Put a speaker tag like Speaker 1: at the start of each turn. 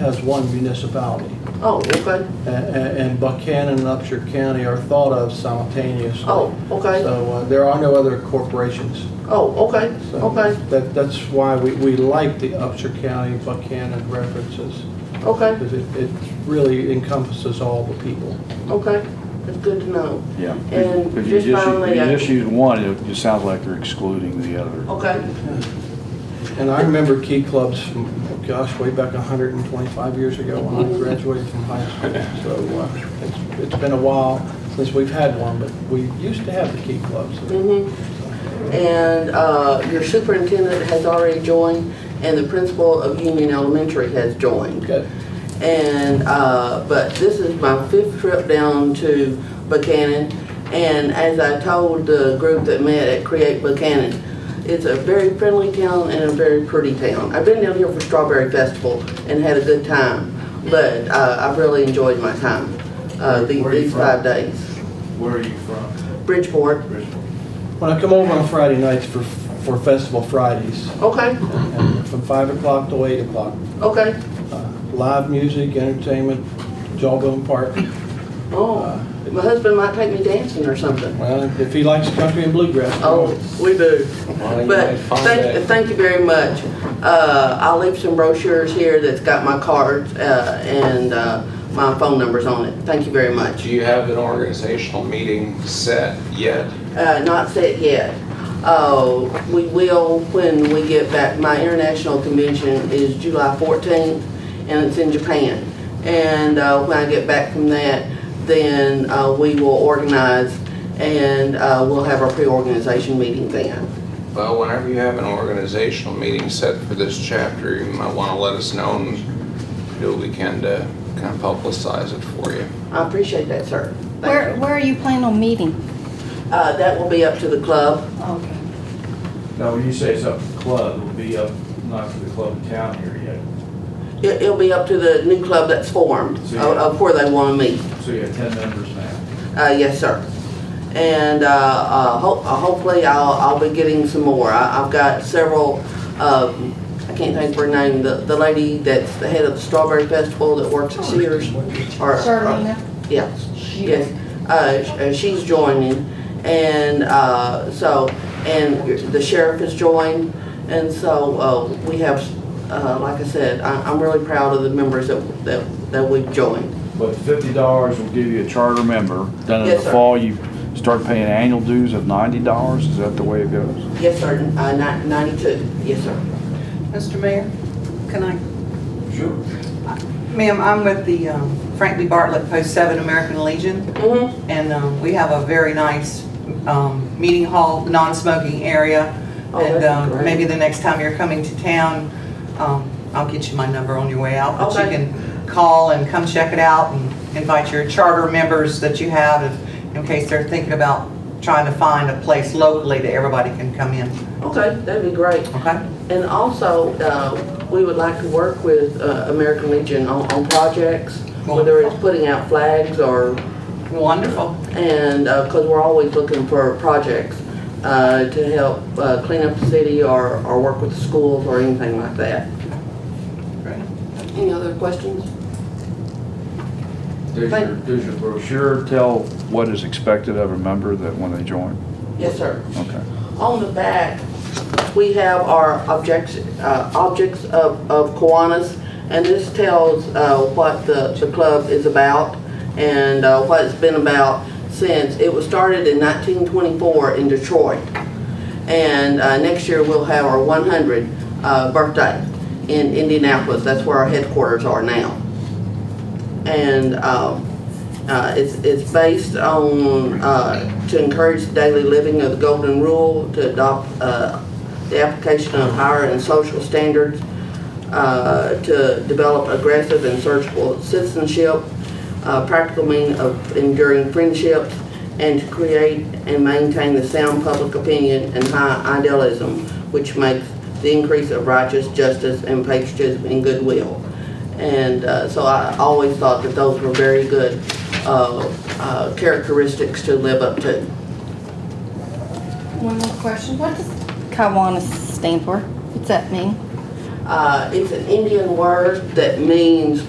Speaker 1: as one municipality.
Speaker 2: Oh, okay,
Speaker 1: A- a- And Buchanan and Upshur County are thought of simultaneously.
Speaker 2: Oh, okay.
Speaker 1: So uh, there are no other corporations.
Speaker 2: oh, okay,
Speaker 1: So
Speaker 2: okay,
Speaker 1: That, that's why we, we like the Upshur County Buchanan references,
Speaker 2: okay,
Speaker 1: because it, it really encompasses all the people.
Speaker 2: okay, that's good to know.
Speaker 3: Yeah.
Speaker 2: And
Speaker 3: If you
Speaker 2: just
Speaker 3: use-
Speaker 2: finally, uh,
Speaker 3: If
Speaker 2: I-
Speaker 3: you just use one, it just sounds like they're excluding the other.
Speaker 2: Okay,
Speaker 1: And I remember key clubs from, oh gosh, way back 125 years ago when I graduated from high school. So uh, it's, it's been a while since we've had one, but we used to have the key clubs.
Speaker 2: mhm. And, uh, your superintendent has already joined, and the principal of Union Elementary has joined.
Speaker 1: Good.
Speaker 2: And, uh, but this is my fifth trip down to Buchanan. And as I told the group that met at Create Buchanan, it's a very friendly town and a very pretty town. I've been down here for Strawberry Festival and had a good time, but, uh, I've really enjoyed my time, uh, the-
Speaker 4: Where are you
Speaker 2: these
Speaker 4: from?
Speaker 2: five days.
Speaker 4: Where are you from?
Speaker 2: Bridgeport,
Speaker 4: Bridgeport.
Speaker 1: When I come over on Friday nights for, for Festival Fridays,
Speaker 2: okay,
Speaker 1: and from 5 o'clock to 8 o'clock,
Speaker 2: okay,
Speaker 1: uh, live music, entertainment, Jawbone Park.
Speaker 2: oh, my husband might take me dancing or something.
Speaker 1: Well, if he likes country and bluegrass.
Speaker 2: Oh, we do. But thank, thank you very much. Uh, I'll leave some brochures here that's got my cards, uh, and, uh, my phone numbers on it. Thank you very much.
Speaker 5: Do you have an organizational meeting set yet?
Speaker 2: Uh, not set yet. Uh, we will when we get back. My international convention is July fourteenth, and it's in Japan. And, uh, when I get back from that, then, uh, we will organize, and, uh, we'll have our pre-organization meeting then.
Speaker 5: Well, whenever you have an organizational meeting set for this chapter, you might want to let us know and do what we can to kind of publicize it for you.
Speaker 2: I appreciate that, sir. Thank
Speaker 6: Where,
Speaker 2: you.
Speaker 6: where are you planning on meeting?
Speaker 2: Uh, that will be up to the club.
Speaker 6: Okay.
Speaker 4: Now, when you say it's up to the club, it'll be up, not to the club in town here yet.
Speaker 2: It, it'll be up to the new club that's formed,
Speaker 4: So,
Speaker 2: of,
Speaker 4: yeah.
Speaker 2: of where they wanna meet.
Speaker 4: So you have ten members now.
Speaker 2: Uh, yes, sir. And, uh, uh, ho- uh, hopefully I'll, I'll be getting some more. I, I've got several, um, I can't think of her name, the, the lady that's the head of the Strawberry Festival that works at Sears. or- or- Yeah, yes. Uh, sh- uh, she's joining and, uh, so, and the sheriff has joined. And so, uh, we have, uh, like I said, I, I'm really proud of the members that, that, that we've joined.
Speaker 4: But
Speaker 3: Fifty dollars will give you a charter member. Then in
Speaker 2: Yes,
Speaker 3: the
Speaker 2: sir.
Speaker 3: fall, you start paying annual dues of ninety dollars. Is that the way it goes?
Speaker 2: Yes, sir, uh, ni- ninety-two, yes, sir.
Speaker 7: Mr. Mayor, can I?
Speaker 4: Sure.
Speaker 7: Ma'am, I'm with the um, Frank B. Bartlett Post 7 American Legion,
Speaker 2: Mm-hmm,
Speaker 7: and um, we have a very nice um, meeting hall, non-smoking area.
Speaker 2: Oh, that'd
Speaker 7: And
Speaker 2: be
Speaker 7: um,
Speaker 2: great.
Speaker 7: maybe the next time you're coming to town, um, I'll get you my number on your way out. But you
Speaker 2: Okay.
Speaker 7: can call and come check it out and invite your charter members that you have if- in case they're thinking about trying to find a place locally that everybody can come in,
Speaker 2: okay, that'd be great.
Speaker 7: okay?
Speaker 2: And also, uh, we would like to work with, uh, American Legion on, on projects, whether it's
Speaker 7: Wonderful.
Speaker 2: putting out flags or,
Speaker 7: Wonderful.
Speaker 2: and, uh cause we're always looking for projects, uh, to help, uh, clean up the city or, or work with the schools or anything like that.
Speaker 7: Great.
Speaker 2: Any other questions?
Speaker 4: Does your, does your brochure,
Speaker 3: Sure, tell what is expected of a member that when they join.
Speaker 2: Yes, sir.
Speaker 3: Okay.
Speaker 2: On the back, we have our objects, uh, objects of, of Kiwanis, and this tells, uh, what the, the club is about and, uh, what it's been about since, it was started in nineteen twenty-four in Detroit. And, uh, next year we'll have our one hundred, uh, birthday in Indianapolis, that's where our headquarters are now. And, um, uh, it's, it's based on, uh, to encourage the daily living of the golden rule, to adopt, uh, the application of higher and social standards, uh, to develop aggressive and searchable citizenship, uh, practical means of enduring friendships, and to create and maintain the sound public opinion and high idealism, which makes the increase of righteous justice and patriotism and goodwill. And uh, so I always thought that those were very good uh, uh, characteristics to live up to.
Speaker 6: One more question. What does Kiwanis stand for? What's that mean?
Speaker 2: Uh, It's an Indian word that means